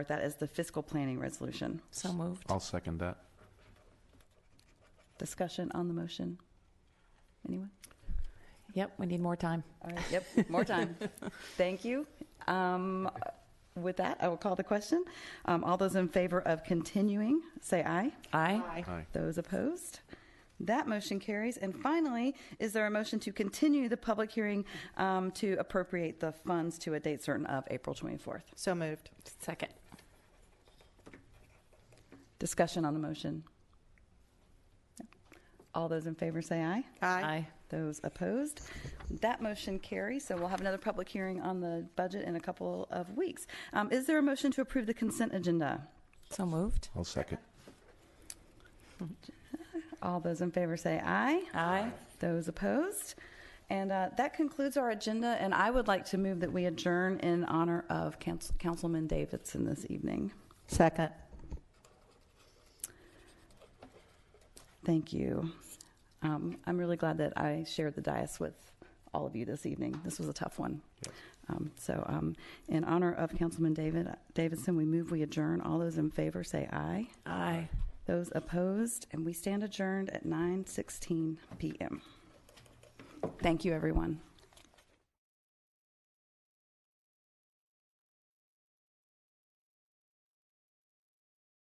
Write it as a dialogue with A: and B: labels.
A: That is the fiscal planning resolution.
B: So moved.
C: I'll second that.
A: Discussion on the motion? Anyone?
B: Yep, we need more time.
A: All right, yep, more time. Thank you. Um, With that, I will call the question. Um, All those in favor of continuing, say aye.
B: Aye.
C: Aye.
A: Those opposed? That motion carries. And finally, is there a motion to continue the public hearing um, to appropriate the funds to a date certain of April 24th?
D: So moved.
B: Second.
A: Discussion on the motion. All those in favor say aye.
B: Aye.
A: Those opposed? That motion carries, so we'll have another public hearing on the budget in a couple of weeks. Um, Is there a motion to approve the consent agenda?
B: So moved.
C: I'll second.
A: All those in favor say aye.
B: Aye.
A: Those opposed? And uh, that concludes our agenda, and I would like to move that we adjourn in honor of Council- Councilman Davidson this evening.
D: Second.
A: Thank you. Um, I'm really glad that I shared the dais with all of you this evening. This was a tough one. Um, so, um, in honor of Councilman David Davidson, we move we adjourn. All those in favor say aye.
B: Aye.
A: Those opposed, and we stand adjourned at 9:16 p.m. Thank you, everyone.